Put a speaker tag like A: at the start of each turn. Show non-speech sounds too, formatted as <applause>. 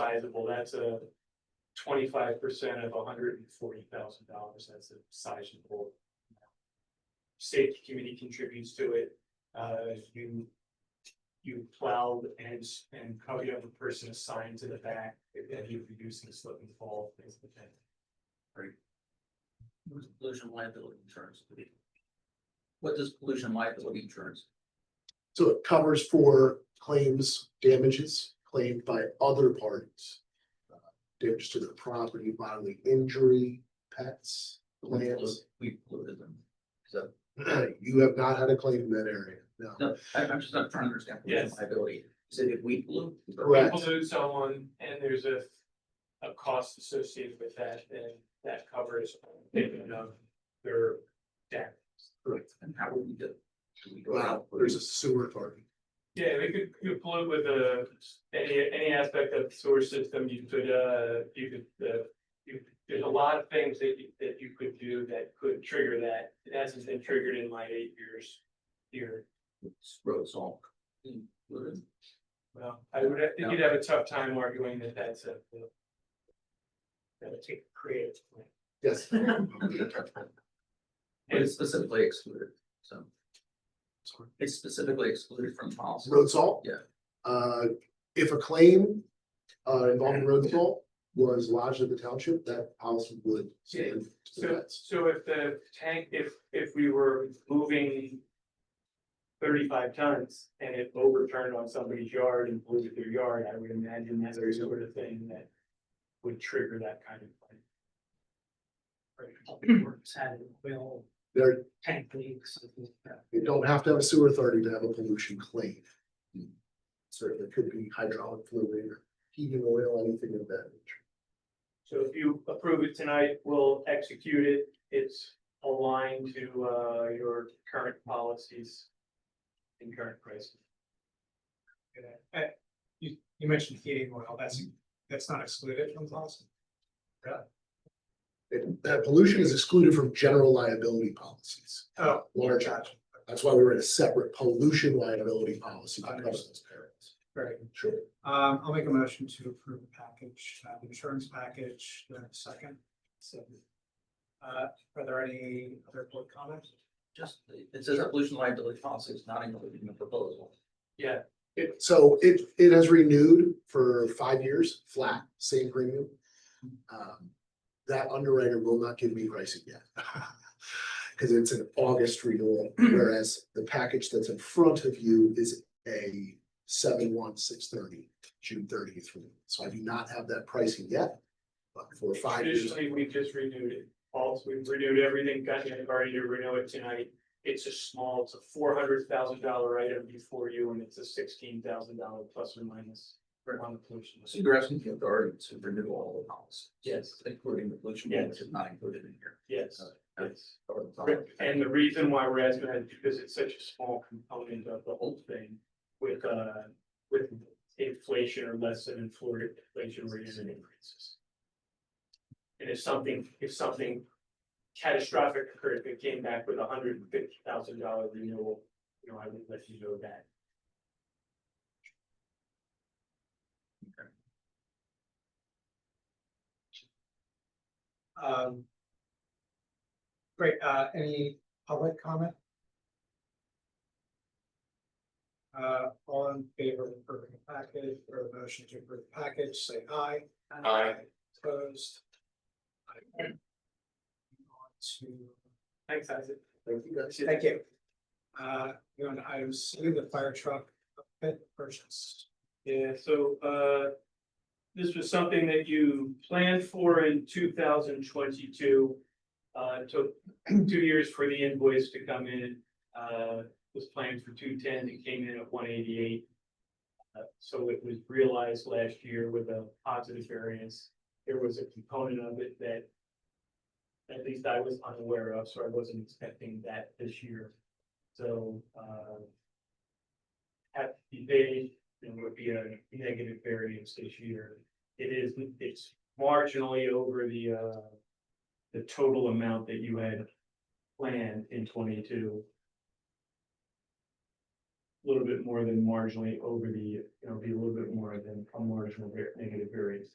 A: sizable, that's a twenty-five percent of hundred and forty thousand dollars, that's a sizable. State community contributes to it, uh, if you, you plow and, and how you have a person assigned to the back, if then you're reducing slip and fall, things like that.
B: What is pollution liability insurance? What does pollution liability insurance?
C: So it covers for claims, damages claimed by other parties. uh, Damage to their property, bodily injury, pets, <clears throat> plants.
B: We polluted them. So,
C: You have not had a claim in that area, no.
B: no, I, I'm just not trying to understand pollution
A: Yes.
B: liability. Is it if we pollute?
C: Correct.
A: People do someone, and there's a, a cost associated with that, and that covers, you know, their damage.
B: And how would we do? it? Do we go
C: Well,
B: out?
C: there's a sewer authority.
A: Yeah, we could, you could pollute with a, any, any aspect of the sewer system, you could, uh, you could, uh. You, there's a lot of things that you, that you could do that could trigger that, it hasn't been triggered in my eight years here.
B: Road salt. Polluted?
A: Well, I would, I think you'd have a tough time arguing that that's a. That'll take creative. plan.
C: Yes,
B: But it's specifically excluded, so
C: sorry.
B: it's specifically excluded from policy.
C: road salt.
B: Yeah.
C: Uh, if a claim uh involving road salt was lodged at the township, that policy would stand. to the
A: So,
C: vets.
A: so if the tank, if, if we were moving thirty-five tons and it overturned on somebody's yard and polluted their yard, I would imagine that's the sort of thing that would trigger that kind of thing.
D: had well,
C: There,
D: tank leaks, something like that.
C: You don't have to have a sewer authority to have a pollution claim. Certainly could be hydraulic fluid or heating oil, anything of that nature.
A: So if you approve it tonight, we'll execute it. It's aligned to, uh, your current policies and current pricing.
E: Uh, you, you mentioned heating oil, that's, that's not excluded from policy.
C: And that pollution is excluded from general liability policies.
E: Oh,
C: Large,
E: gotcha.
C: that's why we were in a separate pollution liability policy. to cover those areas.
E: Very good.
C: Sure.
E: Um, I'll make a motion to approve the package, uh, the insurance package, the second. So, Uh, are there any other board comments?
B: Just, it says pollution liability policy is not included in the proposal.
A: Yeah,
C: It, so it, it has renewed for five years, flat, same premium. Um, That underwriter will not give me pricing yet. <laughs> Cause it's an August renewal, whereas the package that's in front of you is a seven one six thirty, June thirtieth. So I do not have that pricing yet, but for five years.
A: Traditionally, we've just renewed it. Also, we've renewed everything, gotten it already to renew it tonight. It's a small, it's a four hundred thousand dollar item before you, and it's a sixteen thousand dollar plus or minus for on the pollution
B: So
A: list.
B: you're asking the authority to renew all the policies?
A: Yes.
B: Including the pollution, one, which is not included in here.
A: Yes, yes.
B: Or the
A: Right,
B: solid-
A: And the reason why we're asking that is because it's such a small component of the whole thing with, uh, with inflation or less than infl- inflation rate and increases. And if something, if something catastrophic occurred, if it came back with a hundred and fifty thousand dollar renewal, you know, I would let you know that.
E: Um. Great, uh, any public comment? Uh, all in favor of approving the package or the motion to approve the package, say aye.
A: Aye.
E: Opposed. Aye. On to,
A: Thanks, Isaac.
C: Thank you guys.
E: thank you. Uh, you want item C, the fire truck outfit purchase.
A: Yeah, so, uh, this was something that you planned for in two thousand twenty-two. Uh, it took <clears throat> two years for the invoice to come in, uh, was planned for two ten, it came in at one eighty-eight. Uh, so it was realized last year with a positive variance. There was a component of it that at least I was unaware of, so I wasn't expecting that this year. So, uh, have to be paid, it would be a negative variance this year. It is, it's marginally over the, uh, the total amount that you had planned in twenty-two. little bit more than marginally over the, you know, be a little bit more than a marginal var- negative variance.